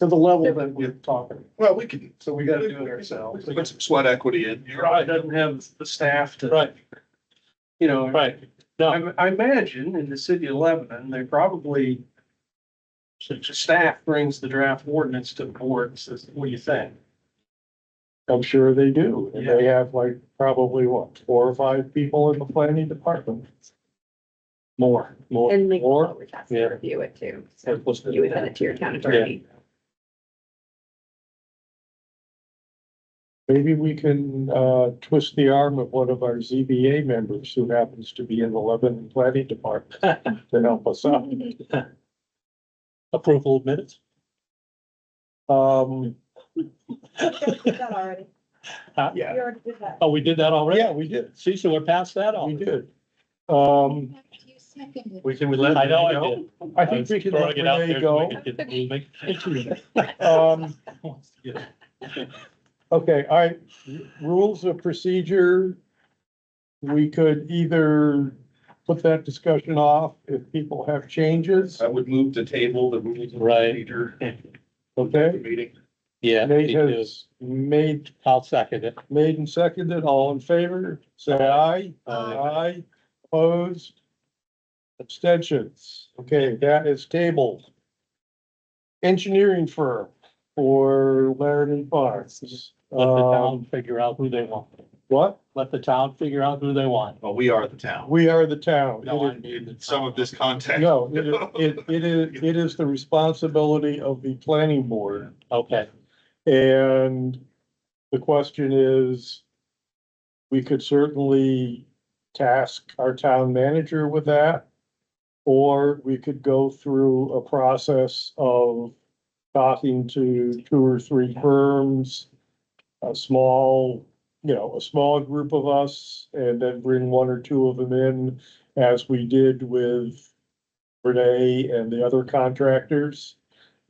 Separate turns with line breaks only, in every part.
to the level that we're talking.
Well, we can,
So we gotta do it ourselves.
we can put some sweat equity in.
Your eye doesn't have the staff to.
Right.
You know.
Right.
I, I imagine in the city of Lebanon, they probably. the Staff brings the draft ordinance to the board and says, what do you think?
I'm sure they do. And
Yeah.
they have like probably what, four or five people in the planning department.
More, more.
And legal
Or-
always has to
yeah.
review it too.
They're
So
supposed to
you
do
would send
that.
it to your town attorney.
Maybe we can uh twist the arm of one of our ZBA members who happens to be in the Lebanon Planning Department to help us out.
Approval of minutes?
Um,
That already,
yeah,
we already did that.
Uh, Oh, we did that already?
yeah, we did,
See, so we're past that
we
already.
did. Um,
We can, we let. I know, I did.
I think we can let
Throwing it out
Renee
there so
go.
we can get the movement.
Um, okay, all right, rules of procedure. We could either put that discussion off if people have changes,
I would move to table the rules. of
Right.
procedure
okay?
Meeting.
Yeah, me
Nate
too.
has made,
I'll second it.
made and seconded, all in favor, say aye. Aye, opposed, abstentions. Okay, that is tabled. Engineering firm for Laramie Farms.
Let the
Um,
town figure out who they want.
what?
Let the town figure out who they want.
Well, we are the town.
We are the town.
No, I
It
mean the
In some of
town.
this context.
is- No, it is- it, it is, it is the responsibility of the planning board.
Okay,
And the question is, we could certainly task our town manager with that. Or we could go through a process of talking to two or three firms, a small, you know, a small group of us, and then bring one or two of them in as we did with Renee and the other contractors.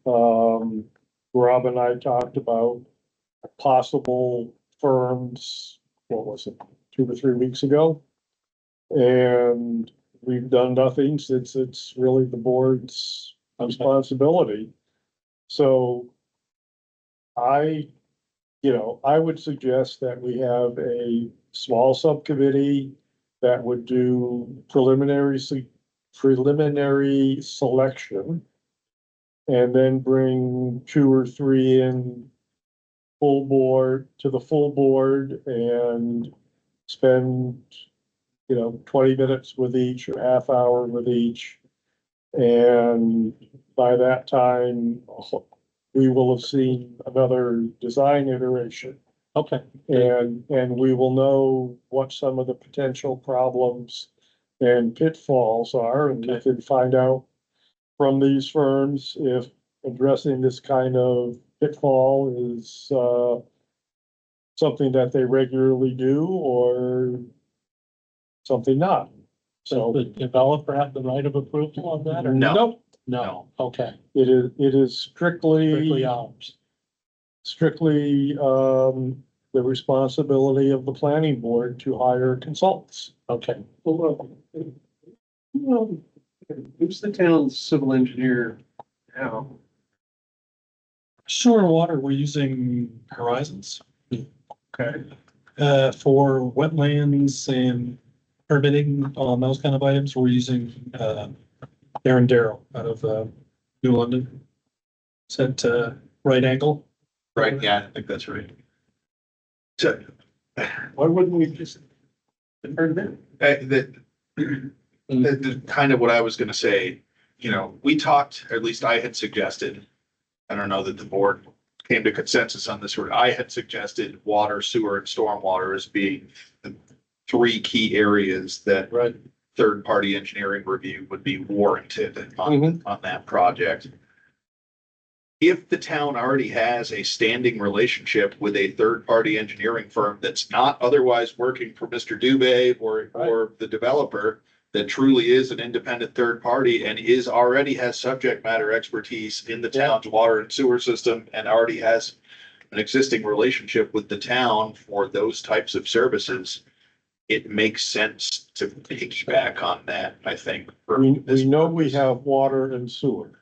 Um, Rob and I talked about possible firms, what was it, two or three weeks ago? And we've done nothing since it's really the board's responsibility. So I, you know, I would suggest that we have a small subcommittee that would do preliminary, se- preliminary selection. And then bring two or three in full board, to the full board and spend, you know, twenty minutes with each or half hour with each. And by that time, we will have seen another design iteration.
okay.
And, and we will know what some of the potential problems and pitfalls are, and we can find out from these firms if addressing this kind of pitfall is, uh, something that they regularly do or something not. So,
So the developer have the right of approval on that or?
No.
nope,
No, okay.
it is, it is
Strictly ours.
strictly um the responsibility of the planning board to hire consultants.
Okay,
Well, look, Well, who's the town's civil engineer now?
Sewer and water, we're using Horizons
Okay.
uh, for wetlands and permitting on those kind of items. We're using uh, Aaron Darrow out of uh, New London. It's at uh, right angle.
Right, yeah, I think that's right. So,
Why wouldn't we just? Heard that?
Uh, that,
Mm.
that- that kind of what I was gonna say, you know, we talked, or at least I had suggested. I don't know that the board came to consensus on this, or I had suggested water, sewer and stormwater as being the three key areas that
right.
third party engineering review would be warranted on, on that project. If the town already has a standing relationship with a third party engineering firm that's not otherwise working for Mr. Dubay or, or the developer. That truly is an independent third party and is already has subject matter expertise in the town's water and sewer system and already has. An existing relationship with the town for those types of services it makes sense to piggyback on that, I think. for
We, we
this
know we
purpose.
have water and sewer.